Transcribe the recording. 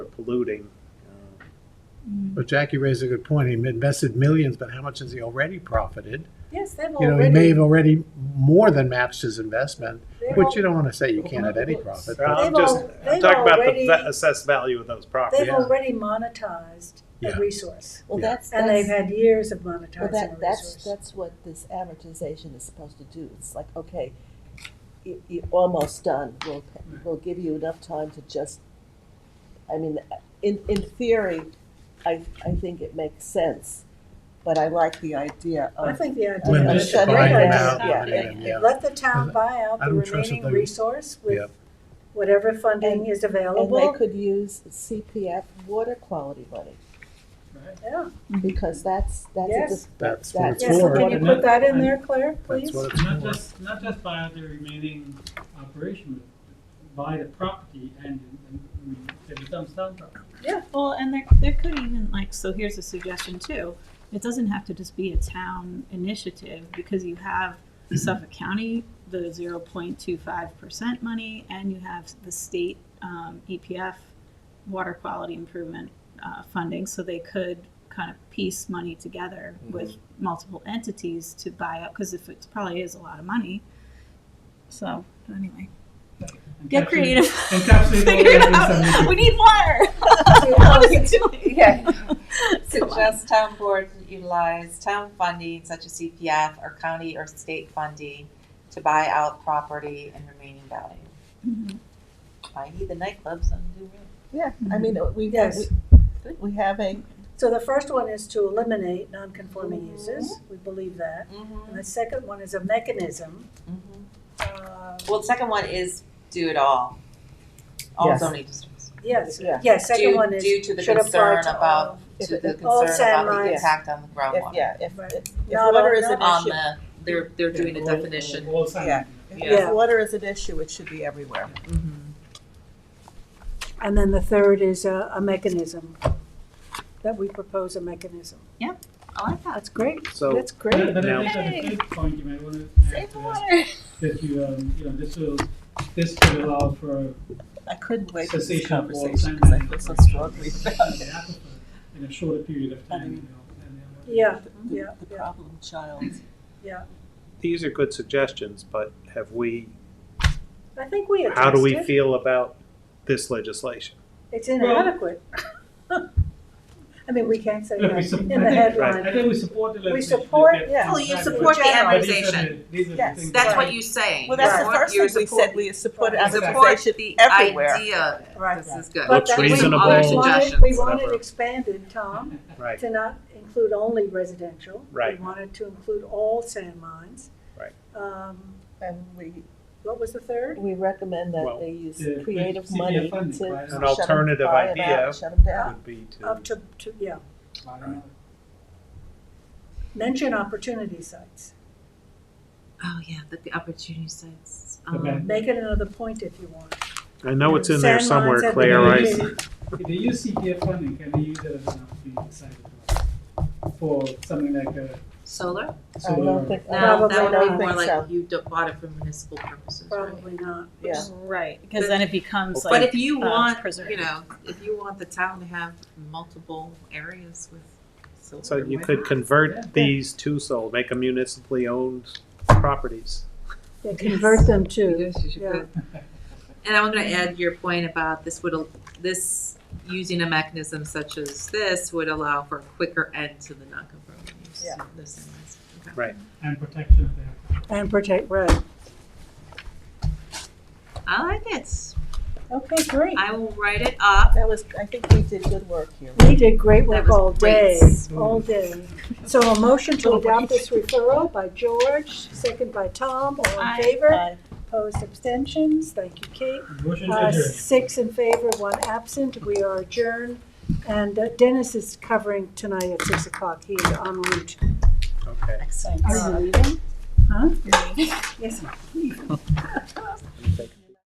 polluting. Uh, But Jackie raised a good point. He invested millions, but how much has he already profited? Yes, they've You know, he may already, have already more than matched his investment, they've which you al- don't want to say you can't at any profit. but- I'm They've just al- I'm they've talking about the already- va- assessed value of those properties. they've already monetized Yeah. a resource. Well, Yeah. that's, And they've that's, had years of well, monetizing a that, that's, resource. that's what this amortization is supposed to do. It's like, okay, you, you're almost done. We'll, we'll give you enough time to just, I mean, in, in theory, I, I think it makes sense, but I like the idea I of, think the idea. When Yeah, they but should that- buy them yeah, out, yeah, eliminate them, yeah. Let the town buy out I the don't trust remaining that they- resource Yeah. with whatever funding is and they available. could use CPF water quality money, Yeah, because that's, Mm-hmm. Yes. That's that's, a- what it's yeah, so for. can you isn't it? put that in there, Claire, That's please? what it's Not for. just, not just buy out the remaining operation, but buy the property and, and, I mean, it becomes town property. Well, and there, there could even like, so here's a suggestion too. It doesn't have to just be a town initiative because you have Suffolk County, the zero point two five percent money, and you have the state, um, EPF water quality improvement, uh, funding, so they could kind of piece money together with multiple entities to buy up, cause if it probably is a lot of money. So, anyway, get Encapsulate- creative. Encapsulate all Figure it that out. in We need water. What are you doing? Yeah. Come on. Suggest town board utilize town funding such as CPF or county or state funding to buy out property and remaining value. Mhm. Mm-hmm. I need the nightclubs and do it. yeah, I mean, we, Mm-hmm. Yes. we- we have a, So the first one is to eliminate non-conforming Mm-hmm. uses, we believe that. Mm-hmm. And the second one is a mechanism, Mm-hmm. Mhm. uh, Well, the second one is do it all, all Yes. zoning districts. yes, Yeah. yes, second Due- one is, Due to the should apply concern to about, all. all. to the concern All sand about the mines. impact on the if, groundwater. yeah, if, Right. if Not water all- is an not On issue. the, they're, they're doing a All- all- definition. all signed. Yeah. Yeah. If water is an issue, it should be everywhere. And then the third is a, a mechanism, that we propose a mechanism. Oh, I like that. That's great, So that's But great. but Now- I think on the Yay. fifth point, you might wanna add Save to the that, water. that you, um, you know, this will, this could allow for I couldn't wait for this cessation of all conversation sand because I mining feel so operations strongly in about the it. aquifer In a shorter period of time, you know. and uh, then what- Yeah, The- yeah, The yeah, problem child. yeah. these are good suggestions, but have we? I think we addressed it. How do we feel about this legislation? It's inadequate. I mean, we can't say Look, we that sup- in I the think- headline. I think we support the legislation. support- that- yeah. Well, you But support the these are the- amortization. these are the Yes. things That's that- what you're saying. Well, that's the You're first thing we support- said, we supported you support amortization the everywhere. idea of Right. This is good. But Looks that- we- we reasonable. want it- Suggestions, We want it whatever. expanded, Tom, Right. to not include only residential. Right. We wanted to include all sand mines. Right. Um, And we, what was the third? we recommend Well, that they use the- the creative CDF money to funding, right? An shut 'em alternative buy 'em idea. out, Shut them down. Would be to Up to, to, yeah, I don't know. mention opportunity sites. Oh, yeah, the, the opportunity sites. The Um, ban- Make it another point if you want. I know it's in there Sand mines somewhere, have Claire. been I, used. If they use CPF funding, can they use it as an opportunity side for something like a Solar? I solar? don't think, I No, don't Probably that would not. be more think so. like you d- bought it for municipal purposes, right? Probably not. Yeah. Right, because then it becomes But like, if you uh, want, you preserved. know, if you want the town to have multiple areas with solar. so you why could not? Yeah. convert these to solar, make them municipally owned properties. Yeah, convert them to, Yes, you should Yeah. put- And I'm gonna add your point about this would, al- this, using a mechanism such as this would allow for a quicker end to the non-conforming use. Yeah. This and this. Okay. And protection of their. and protect, right. I like it. Okay, great. I will write it up. That was, I think we did good work here. We did great That work was all great. Mm-hmm. Oh, day, all day. So a motion to adopt this referral by George, second by Tom, all in Aye. favor, Bye. opposed abstentions, thank you, Kate. Motion to Uh, adjourn. Six in favor, one absent, we are adjourned. And uh, Dennis is covering tonight at six o'clock, he is en route. Okay. Are you leaving? Huh? Yes, I'm leaving.